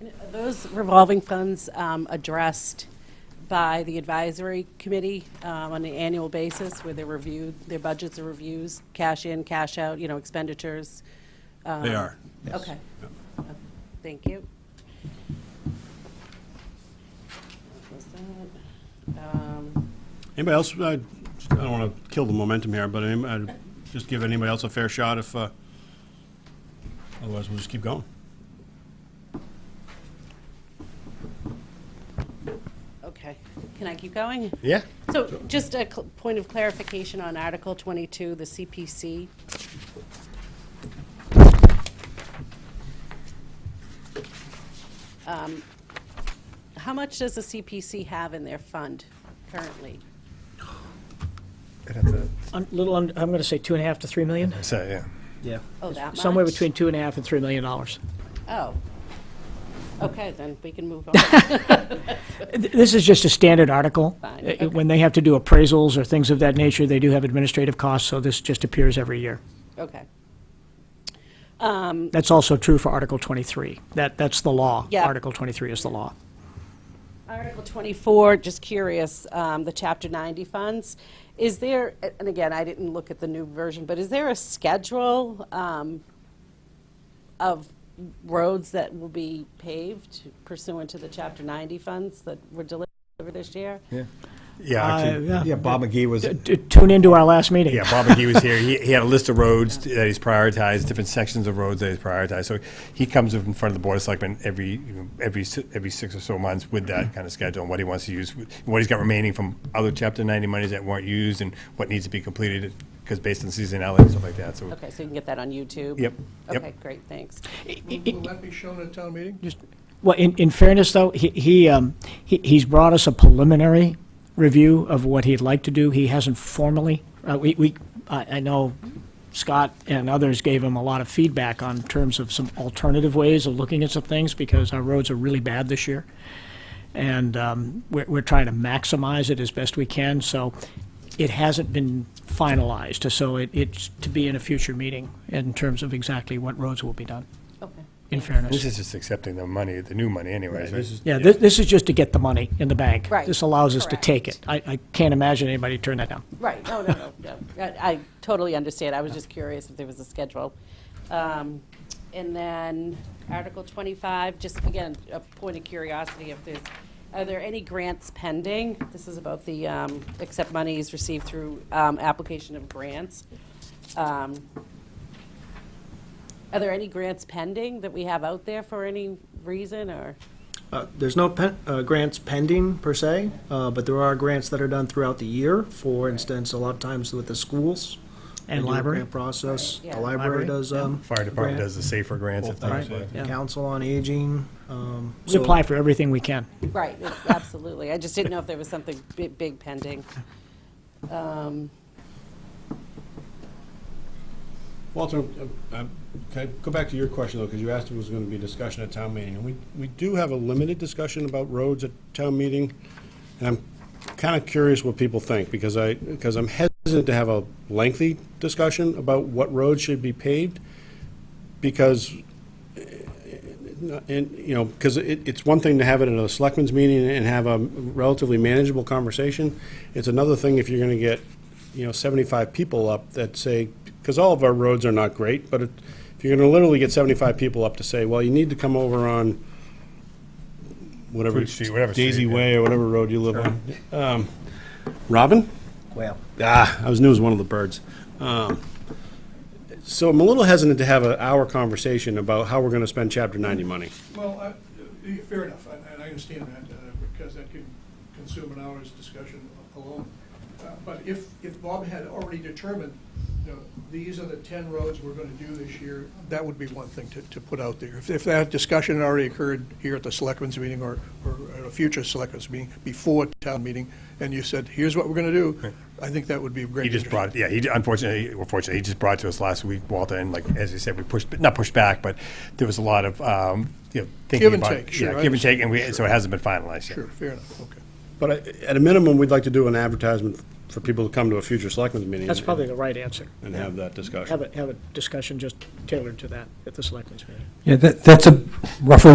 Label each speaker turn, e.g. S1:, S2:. S1: And are Those revolving funds um, addressed by the advisory committee um, on an annual basis where they're reviewed, their budgets are reviews, cash in, cash out, you know, expenditures? um,
S2: They are.
S1: Okay. Okay, Thank you. That was that. Um,
S2: Anybody else, uh, I don't want to kill the momentum here, but any- I'd just give anybody else a fair shot if, uh, otherwise we'll just keep going.
S1: Okay, can I keep going?
S2: Yeah.
S1: So just a cl- point of clarification on Article 22, the CPC. Um, How much does the CPC have in their fund currently?
S3: I'd have to
S4: A little, under- I'm going to say two and a half to three million,
S3: say, yeah.
S5: Yeah.
S1: Oh, that much?
S4: somewhere between two and a half and three million dollars.
S1: Oh. Okay, then we can move on.
S4: Th- This is just a standard article.
S1: Fine,
S4: Uh,
S1: okay.
S4: When they have to do appraisals or things of that nature, they do have administrative costs, so this just appears every year.
S1: Okay.
S4: That's also true for Article 23. That, that's the law.
S1: Yeah.
S4: Article 23 is the law.
S1: Article 24, just curious, um, the Chapter 90 funds, is there, and again, I didn't look at the new version, but is there a schedule um, of roads that will be paved pursuant to the Chapter 90 funds that were delivered this year?
S3: Yeah,
S4: Uh,
S3: actually,
S4: yeah.
S3: yeah, Bob McGee was,
S4: Uh, T- Tune into our last meeting.
S3: yeah, Bob McGee was here. He, he had a list of roads that he's prioritized, different sections of roads that he's prioritized. So he comes up in front of the Board of Selectmen every, you know, every, si- every six or so months with
S4: Mm-hmm.
S3: that kind of schedule and what he wants to use, what he's got remaining from other Chapter 90 monies that weren't used and what needs to be completed, because based on seasonality and stuff like that, so.
S1: Okay, so you can get that on YouTube?
S3: Yep, yep.
S1: Okay, great, thanks.
S6: Will that be shown at town meeting?
S4: Well, in, in fairness, though, he, he, um, he, he's brought us a preliminary review of what he'd like to do. He hasn't formally, uh, we, we, I, I know Scott and others gave him a lot of feedback on terms of some alternative ways of looking at some things because our roads are really bad this year. And, um, we're, we're trying to maximize it as best we can, so it hasn't been finalized. So it, it's to be in a future meeting in terms of exactly what roads will be done,
S1: Okay.
S4: in fairness.
S3: This is just accepting the money, the new money anyways, right?
S4: Yeah, this, this is just to get the money in the bank.
S1: Right,
S4: This allows us to
S1: correct.
S4: take it. I, I can't imagine anybody turn that down.
S1: Right, no, no, no, no. I I totally understand, I was just curious if there was a schedule. Um, And then Article 25, just again, a point of curiosity, if there's, are there any grants pending? This is about the, um, except monies received through um, application of grants. Um, Are there any grants pending that we have out there for any reason, or?
S5: Uh, There's no pen- uh, grants pending per se, uh, but there are grants that are done throughout the year. For instance, a lot of times with the schools.
S4: And
S5: they do a
S4: library.
S5: Grant process.
S1: Right, yeah.
S5: The library
S4: Library,
S5: does.
S4: yeah.
S5: um,
S3: Fire department
S5: grant.
S3: does the safer grants and
S2: Both
S3: things.
S2: things,
S3: like
S5: Right,
S2: Yeah.
S5: Council on Aging. um,
S4: We
S5: so-
S4: apply for everything we can.
S1: Right, it- absolutely. I just didn't know if there was something bi- big pending. Um,
S2: Walter, uh, um, can I go back to your question, though, because you asked if it was going to be discussion at town meeting. And we, we do have a limited discussion about roads at town meeting, and I'm kind of curious what people think, because I, because I'm hesitant to have a lengthy discussion about what roads should be paved, because and, you know, because it, it's one thing to have it at a selectmen's meeting and have a relatively manageable conversation. It's another thing if you're gonna get, you know, seventy-five people up that say, because all of our roads are not great, but it- if you're gonna literally get seventy-five people up to say, well, you need to come over on whatever,
S3: Fruit Street, whatever
S2: Daisy
S3: street, yeah.
S2: Way or whatever road you live on. Um, Robin?
S5: Well,
S2: Ah, I was knew it was one of the birds. Um, so I'm a little hesitant to have an hour conversation about how we're going to spend Chapter 90 money.
S6: Well, I- uh, fair enough, and and I understand that, uh, because that could consume an hour's discussion alone. Uh, But if, if Bob had already determined, you know, these are the 10 roads we're going to do this year, that would be one thing to, to put out there. If- If that discussion had already occurred here at the selectmen's meeting or, or at a future selectmen's meeting, before town meeting, and you said, here's what we're going to do, I think that would be a great.
S3: He just brought,
S6: interest.
S3: yeah, he unfortunately, or fortunately, he just brought to us last week, Walter, and like, as you said, we pushed, not pushed back, but there was a lot of, um, you know, thinking
S6: Give and
S3: about.
S6: take, sure,
S3: Yeah,
S6: I
S3: give and take, and we,
S6: understand.
S3: so it hasn't been finalized yet.
S6: Sure, fair enough, okay.
S2: But I- at a minimum, we'd like to do an advertisement for people to come to a future selectmen's meeting.
S4: That's probably the right answer.
S2: And have that discussion.
S4: Have a, have a discussion just tailored to that at the selectmen's meeting.
S7: Yeah, that, that's a roughly